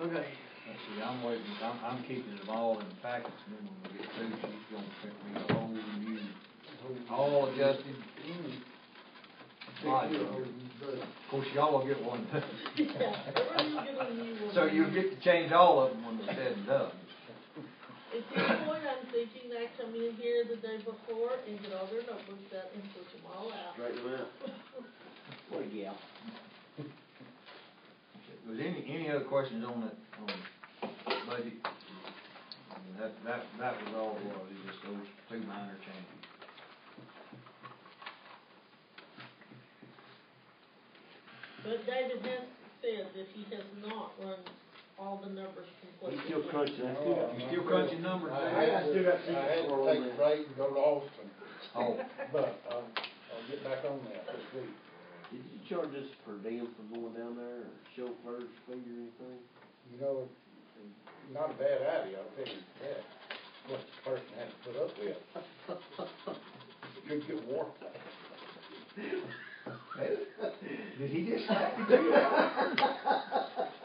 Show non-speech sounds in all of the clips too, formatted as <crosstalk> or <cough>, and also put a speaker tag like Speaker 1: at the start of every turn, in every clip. Speaker 1: Okay.
Speaker 2: Let's see, I'm waiting, I'm, I'm keeping it all in packets, and then when we get through, she's gonna print me a whole new, all adjusted. Right. Of course, y'all will get one. <laughs>
Speaker 3: <laughs>
Speaker 2: So you'll get to change all of them when they're said and done.
Speaker 3: At this point, I'm thinking that coming in here the day before and get all their notebooks out and put them all out.
Speaker 4: Straighten them out.
Speaker 5: Well, yeah.
Speaker 2: Was any, any other questions on that, on budget? I mean, That, that, that was all, it was it was just those two minor changes.
Speaker 3: <laughs> But David has said that he has not run all the numbers completely.
Speaker 4: He's still crunching, I still got,
Speaker 2: You still crunching numbers
Speaker 6: I
Speaker 2: there?
Speaker 6: had to, I had to take a break and go to Austin,
Speaker 2: Oh,
Speaker 6: but uh, I'll, I'll get back on that this week.
Speaker 4: did you charge us per diem for going down there, or chauffeur's fee or anything?
Speaker 6: You know, it's not a bad idea, I'll tell you that, what the person has to put up with. Could get warm.
Speaker 2: did he just?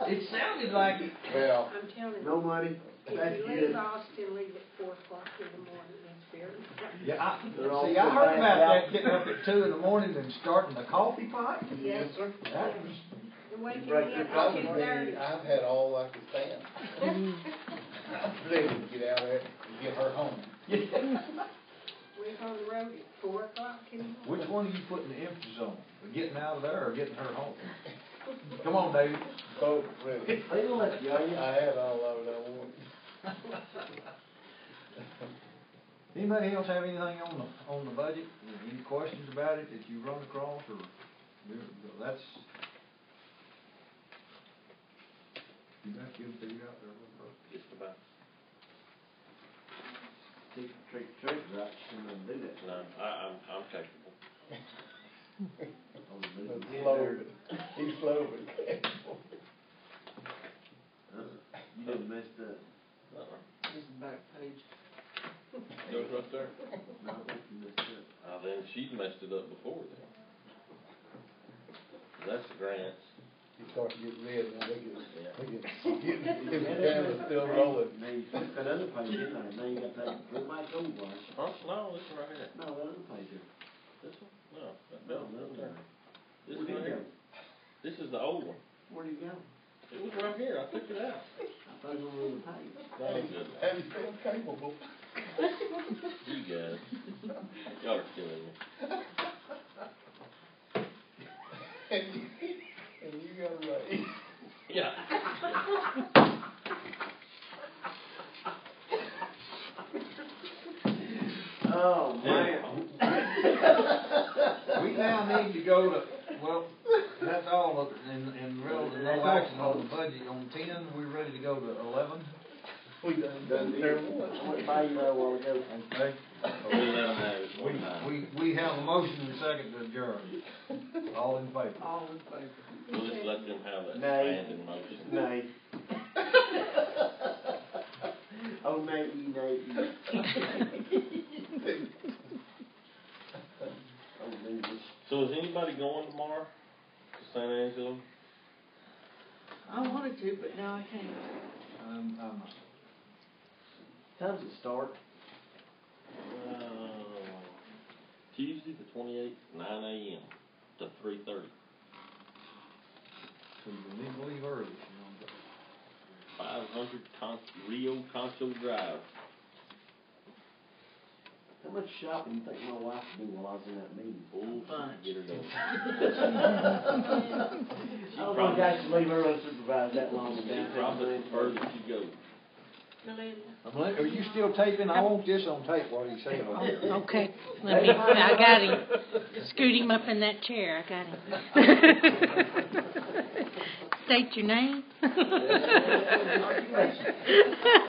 Speaker 2: It sounded like it.
Speaker 6: Well,
Speaker 7: I'm telling you.
Speaker 4: No money, that's
Speaker 7: If you
Speaker 4: good.
Speaker 7: leave Austin, leave at four o'clock in the morning, it's very.
Speaker 2: Yeah, I,
Speaker 4: They're all
Speaker 2: see, I heard
Speaker 4: so
Speaker 2: about
Speaker 4: bad.
Speaker 2: that, getting up at two in the morning and starting the coffee pot.
Speaker 6: yes, sir.
Speaker 2: That was,
Speaker 7: The waking
Speaker 4: break
Speaker 7: me
Speaker 4: your
Speaker 7: up
Speaker 6: I
Speaker 7: at
Speaker 6: was
Speaker 7: two
Speaker 6: ready,
Speaker 7: thirty.
Speaker 6: I've had all I could stand. Ready to get out of there and get her home.
Speaker 7: <laughs> We're on the road at four o'clock in the morning.
Speaker 2: <laughs> which one are you putting the emphasis on? Getting out of there or getting her home? Come on, David.
Speaker 6: Both really.
Speaker 4: They don't let you, are you?
Speaker 6: I had all of it I wanted.
Speaker 2: Anybody else have anything on the, on the budget? Any questions about it that you run across or, that's? You got to figure out there.
Speaker 4: Just about. Take the trick, trick, right, shouldn't have done that.
Speaker 8: No, I, I'm, I'm
Speaker 4: <laughs>
Speaker 8: capable.
Speaker 4: I was
Speaker 6: He's
Speaker 4: looking in
Speaker 6: slow,
Speaker 4: there.
Speaker 6: but, he's slow, but.
Speaker 4: Uh, You done messed up.
Speaker 5: This is back page.
Speaker 8: Goes right there.
Speaker 4: No, I think you messed up.
Speaker 8: Uh, then she messed it up before then. That's the grants.
Speaker 6: You start to get red and they get,
Speaker 8: Yeah.
Speaker 6: they get, get,
Speaker 4: Yeah,
Speaker 6: his camera's
Speaker 4: that other
Speaker 6: still
Speaker 4: page-
Speaker 6: rolling.
Speaker 4: Now you took that other page in there, now you got that, go back over.
Speaker 8: Huh? No, this one right here.
Speaker 4: No, that other page there.
Speaker 8: This one? No, that
Speaker 4: No, that
Speaker 8: belt right
Speaker 4: other
Speaker 8: there.
Speaker 4: one.
Speaker 8: This
Speaker 4: Where'd
Speaker 8: one
Speaker 4: it
Speaker 8: right here.
Speaker 4: go?
Speaker 8: This is the old one.
Speaker 4: Where'd it go?
Speaker 8: It was right here. I took it out.
Speaker 4: I thought it was on the page.
Speaker 8: That was good.
Speaker 6: Have you been capable?
Speaker 8: You guys. Y'all are killing me.
Speaker 6: And you, and you got away.
Speaker 8: Yeah.
Speaker 4: Oh,
Speaker 8: man.
Speaker 2: We now need to go to, well, that's all of, and, and really no action on the budget. On ten, we're ready to go to eleven.
Speaker 6: We done,
Speaker 4: Done
Speaker 6: done
Speaker 4: deal.
Speaker 6: there
Speaker 4: I
Speaker 6: once.
Speaker 4: went by you there a while ago.
Speaker 2: Okay.
Speaker 8: We let 'em have it
Speaker 2: We,
Speaker 8: one time.
Speaker 2: we, we have a motion and a second to adjourn. All in favor?
Speaker 5: All in favor?
Speaker 8: We'll just let them have that
Speaker 4: Nay.
Speaker 8: abandoned motion.
Speaker 4: Nay. Oh, Nate, you Nate, you. Oh, Jesus.
Speaker 8: So is anybody going tomorrow to San Angelo?
Speaker 5: I wanted to, but now I can't.
Speaker 2: Um, um,
Speaker 4: Time's it start?
Speaker 8: Um, Tuesday the twenty-eighth, nine AM to three thirty.
Speaker 2: so you need to leave early. you
Speaker 8: Five hundred Con- Rio Concho Drive.
Speaker 4: How much shopping do you think my wife would do while I was in that meeting?
Speaker 8: Ooh,
Speaker 5: Bunch.
Speaker 8: get her done.
Speaker 4: I don't think I should Oh, leave her unsupervised that long.
Speaker 8: She probably prefer that you go.
Speaker 2: know. Are you still taping? I want this on tape, what he said.
Speaker 9: Okay, let me, I got <laughs> him. Scoot him up in that chair, I got <laughs> him. State your name.